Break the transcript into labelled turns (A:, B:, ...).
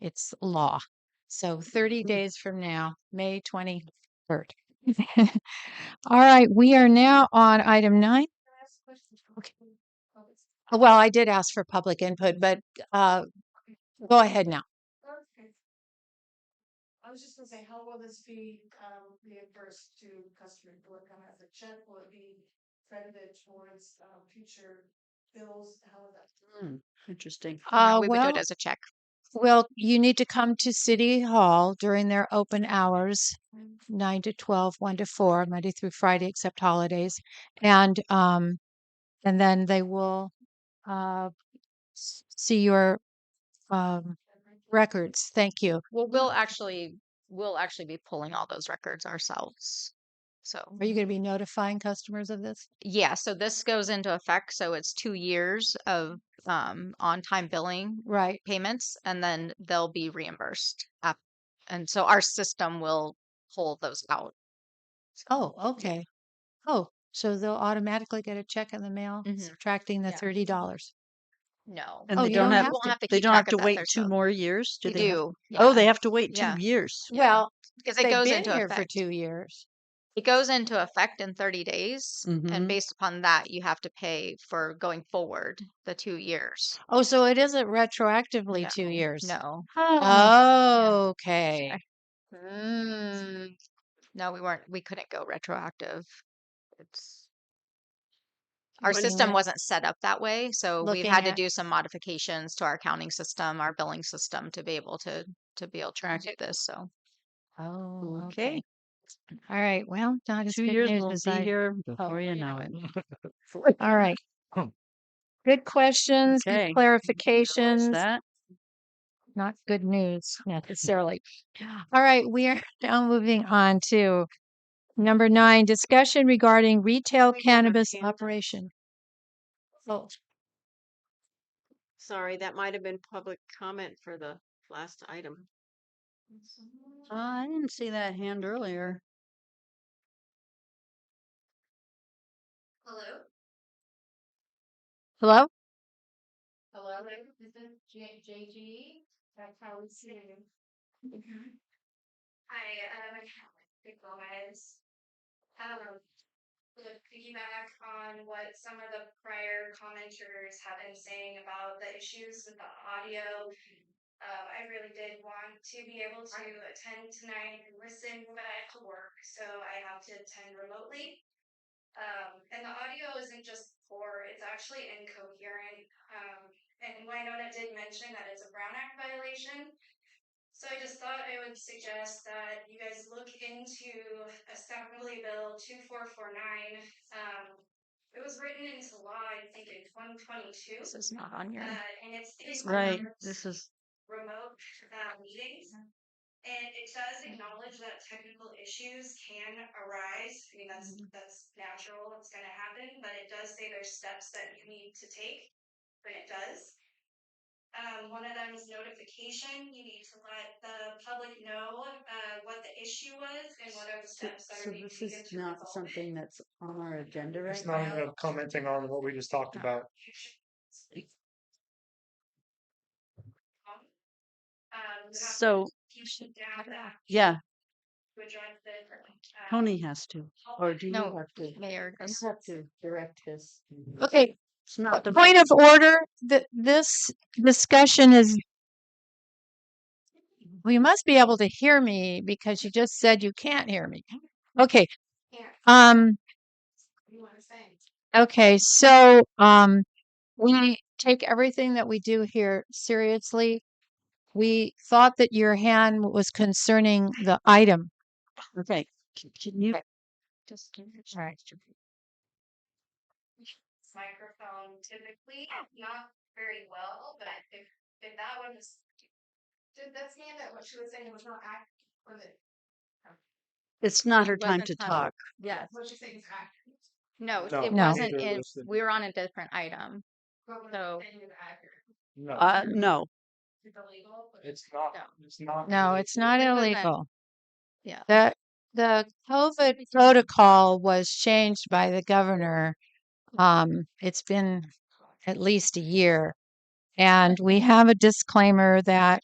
A: It's law. So 30 days from now, May 23rd. All right, we are now on item nine. Okay. Uh, Well, I did ask for public input, but uh, go ahead now.
B: Okay. I was just gonna say, how will this be um reimbursed to customers? Will it come as a check? Will it be credited towards um future bills? How is that?
C: Hmm.
D: Interesting.
A: Uh,
D: Yeah, we would do
A: well-
D: it as a check.
A: Well, you need to come to City Hall during their open hours, nine to 12, one to four, Monday through Friday, except holidays. And, um, and then they will, uh, s- see your, um, records. Thank you.
D: Well, we'll actually, we'll actually be pulling all those records ourselves. So,
A: Are you going to be notifying customers of this?
D: yeah, so this goes into effect. So it's two years of um, on-time billing
A: Right.
D: payments, and then they'll be reimbursed up. And so our system will pull those out.
A: Oh, okay. Oh, so they'll automatically get a check in the mail
D: Mhm.
A: subtracting the
D: Yeah.
A: thirty dollars.
D: No.
C: And
A: Oh,
C: they
A: you
C: don't
A: don't
C: have,
A: have
D: Won't
C: to-
D: have to
C: they
D: keep
C: don't
D: track
C: have to
D: of that
C: wait two
D: themselves.
C: more years? Do
D: They
C: they? have-
D: do.
C: Oh,
D: yeah,
C: they have to wait
D: Yeah.
C: two years.
A: Well,
D: Because it
A: they've
D: goes
A: been
D: into
A: here for
D: effect.
A: two years.
D: It goes into effect in 30 days. And
C: Mhm.
D: based upon that, you have to pay for going forward the two years.
A: Oh, so it isn't retroactively
D: No,
A: two years.
D: No,
A: Oh, okay. Mm,
D: no, we weren't, we couldn't go retroactive. It's, our
A: What do you
D: system
A: mean?
D: wasn't set up that way, so we've
A: Looking
D: had to
A: at-
D: do some modifications to our accounting system, our billing system to be able to, to be able to track this, so.
A: Oh, okay.
C: Okay.
A: All right. Well, not as
C: Two
A: good
C: years
A: news
C: will
A: as
C: be
A: I.
C: here before you know it.
A: All right.
E: Hmm.
A: Good questions, good
C: Okay. Is
A: clarifications.
C: that?
A: not good news necessarily. All right, we are now moving on to number nine discussion regarding retail cannabis operation.
F: Oh. Sorry, that might have been public comment for the last item.
C: Uh, I didn't see that hand earlier.
B: Hello?
A: Hello?
B: Hello, this is J- JG. That's how we see you. Hi, um, good Gomez. Um, to piggyback on what some of the prior commenters have been saying about the issues with the audio. Uh, I really did want to be able to attend tonight and listen, but I have to work, so I have to attend remotely. Um, and the audio isn't just poor, it's actually incoherent. Um, and Winona did mention that it's a Brown Act violation. So I just thought I would suggest that you guys look into Assembly Bill two four four nine. Um, it was written into law, I think, in twenty twenty-two.
D: This is not on your,
B: Uh, and it's. it's
C: Right,
B: under-
C: this is,
B: remote uh, meetings. And it does acknowledge that technical issues can arise. I mean, that's,
C: Mm-hmm.
B: that's natural, it's gonna happen, but it does say there's steps that you need to take when it does. Um, one of them is notification. You need to let the public know, uh, what the issue was and what are the
C: so
B: steps that
C: so
B: are being
C: this
B: taken
C: is
B: to
C: not
B: resolve it.
C: something that's on our agenda right
E: It's not
C: now.
E: even commenting on what we just talked about.
B: Um, you have to
C: So,
B: keep it down that
C: yeah,
B: to address the, uh,
C: Tony has to, or Oh, do you
D: No,
C: have to? You
D: Mayor, goes-
C: have to direct his.
A: Okay,
C: It's not the.
A: point of order, that this discussion is. Well, you must be able to hear me because you just said you can't hear me. Okay,
B: Yeah,
A: um,
B: you wanna say?
A: okay, so, um, we take everything that we do here seriously. We thought that your hand was concerning the item.
C: Okay, c- can you,
D: just,
A: Right.
B: microphone typically, not very well, but if, if that one is. Did that stand that what she was saying was not accurate, was it?
C: it's not her time
D: Wasn't
C: to
D: time.
C: talk.
D: yes.
B: What she's saying is accurate.
D: No,
E: No,
D: it
A: No.
D: wasn't
E: neither
D: in,
E: was the-
D: we were on a different item.
B: What was
D: So-
B: saying is accurate.
E: No,
C: Uh, no,
B: It's illegal, but
E: it's not, it's not.
A: No,
E: really-
A: it's not
D: It wasn't.
A: illegal.
D: Yeah.
A: The, the COVID protocol was changed by the governor. Um, it's been at least a year. And we have a disclaimer that